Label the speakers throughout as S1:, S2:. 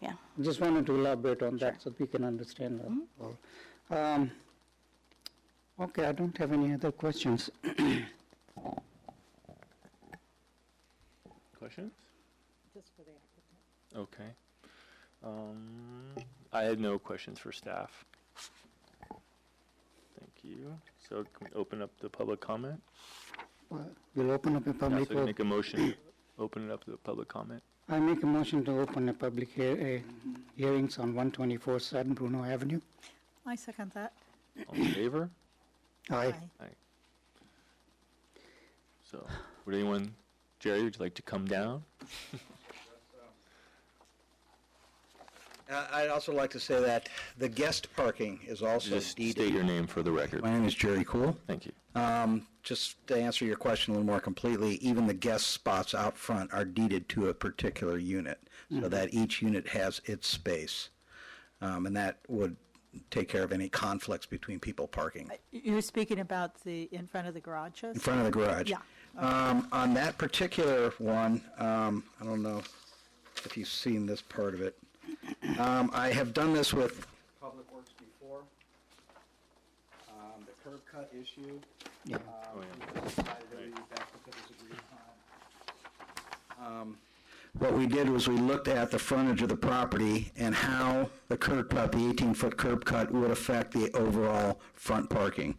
S1: yeah.
S2: Just wanted to elaborate on that so we can understand. that all. Um, Okay, I don't have any other questions.
S3: Questions? Just for the applicant. Okay. Um, I had no questions for staff. Thank you. So can we open up the public comment?
S2: Well, We'll open up a
S3: Yeah,
S2: public,
S3: so you
S2: vote.
S3: make a motion, open it up to the public comment.
S2: I make a motion to open a public hea- uh, hearings on 124 San Bruno Avenue.
S4: I second that.
S3: All in favor?
S2: Aye.
S3: So, would anyone, Jerry, would you like to come down?
S5: Uh, I'd also like to say that the guest parking is also
S3: Just state
S5: deeded.
S3: your name for the record.
S5: My name is Jerry Cool.
S3: Thank you.
S5: Um, Just to answer your question a little more completely, even the guest spots out front are deeded to a particular unit, so that each unit has its space. Um, And that would take care of any conflicts between people parking
S4: You're speaking about the, in front of the garages?
S5: in front of the garage.
S4: Yeah.
S5: Um, On that particular one, um, I don't know if you've seen this part of it. Um, I have done this with Public Works before. Um, The curb cut issue.
S2: Yeah.
S5: um, decided that that's what was agreed upon. Um, What we did was we looked at the frontage of the property and how the curb cut, the 18-foot curb cut, would affect the overall front parking.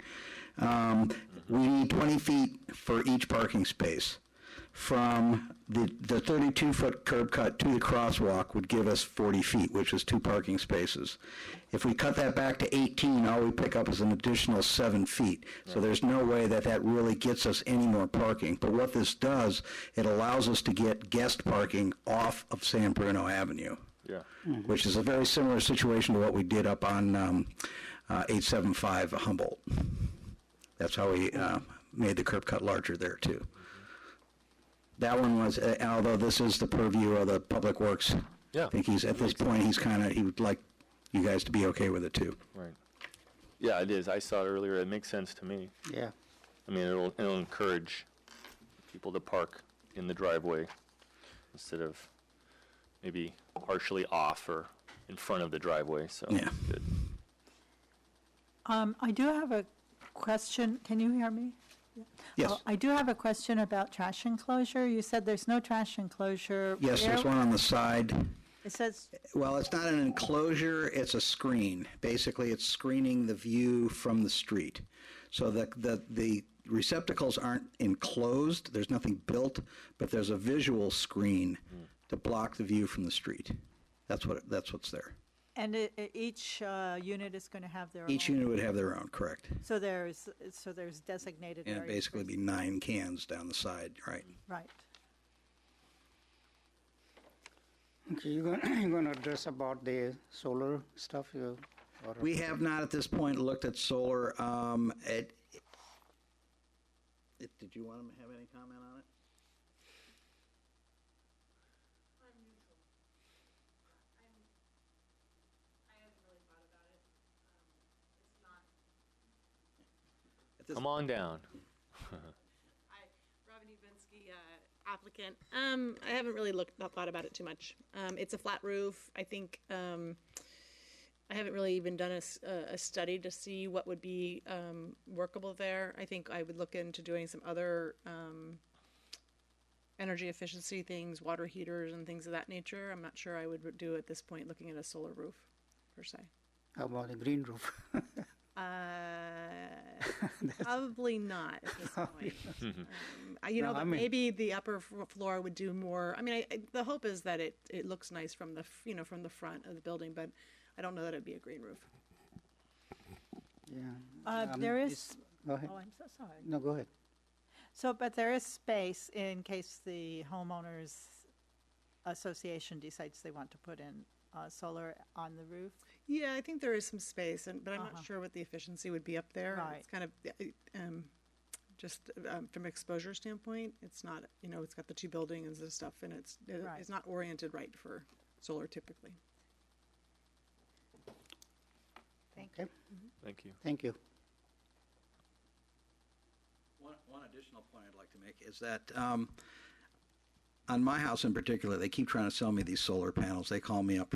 S5: Um, We need 20 feet for each parking space. From the the 32-foot curb cut to the crosswalk would give us 40 feet, which is two parking spaces. If we cut that back to 18, all we pick up is an additional seven feet. So there's no way that that really gets us any more parking. But what this does, it allows us to get guest parking off of San Bruno Avenue,
S3: Yeah.
S5: which is a very similar situation to what we did up on um, uh, 875 Humboldt. That's how we uh, made the curb cut larger there, too. That one was, uh, although this is the purview of the Public Works.
S3: Yeah.
S5: I think he's, at this point, he's kind of, he would like you guys to be okay with it, too.
S3: Right. Yeah, it is. I saw it earlier. It makes sense to me.
S2: Yeah.
S3: I mean, it'll, it'll encourage people to park in the driveway instead of maybe partially off or in front of the driveway, so.
S5: Yeah.
S3: good.
S4: Um, I do have a question, can you hear me?
S5: Yes.
S4: Oh, I do have a question about trash enclosure. You said there's no trash enclosure.
S5: Yes, there's
S4: Where-
S5: one on the side.
S4: It says,
S5: Well, it's not an enclosure, it's a screen. Basically, it's screening the view from the street. So the, the, the receptacles aren't enclosed, there's nothing built, but there's a visual screen to block the view from the street. That's what, that's what's there.
S4: and it, it- each uh, unit is going to have their own.
S5: Each unit would have their own, correct?
S4: So there's, so there's designated
S5: And
S4: areas.
S5: it'd basically be nine cans down the side, right?
S4: Right.
S2: Okay, you're gonna, you're gonna address about the solar stuff, uh, you, or?
S5: We have not at this point looked at solar. Um, it, it, did you want to have any comment on it? At this
S3: Come on down.
S6: Hi, Robin Ubinsky, uh, applicant. Um, I haven't really looked, not thought about it too much. Um, it's a flat roof. I think, um, I haven't really even done a, s- a- a study to see what would be, um, workable there. I think I would look into doing some other, um, energy efficiency things, water heaters and things of that nature. I'm not sure I would do at this point, looking at a solar roof per se.
S2: How about the green roof?
S6: Uh, probably not at this point. Um, I- You
S2: No,
S6: know,
S2: I
S6: but
S2: mean-
S6: maybe the upper f- floor would do more. I mean, I, I- the hope is that it, it looks nice from the, f- you know, from the front of the building, but I don't know that it'd be a green roof.
S2: Yeah,
S4: Uh,
S2: Um,
S4: There
S2: it's-
S4: is,
S2: go ahead.
S4: oh, I'm so sorry.
S2: No, go ahead.
S4: So, but there is space in case the homeowners association decides they want to put in uh, solar on the roof.
S6: Yeah, I think there is some space, and, but I'm not sure what the efficiency would be up there.
S4: Uh-huh. Right.
S6: It's kind of, uh, um, just um, from exposure standpoint, it's not, you know, it's got the two buildings and stuff, and it's, it-
S4: Right.
S6: it's not oriented right for solar typically.
S4: Thank
S2: Okay,
S3: Thank you.
S2: thank you.
S5: One, one additional point I'd like to make is that, um, on my house in particular, they keep trying to sell me these solar panels. They call me up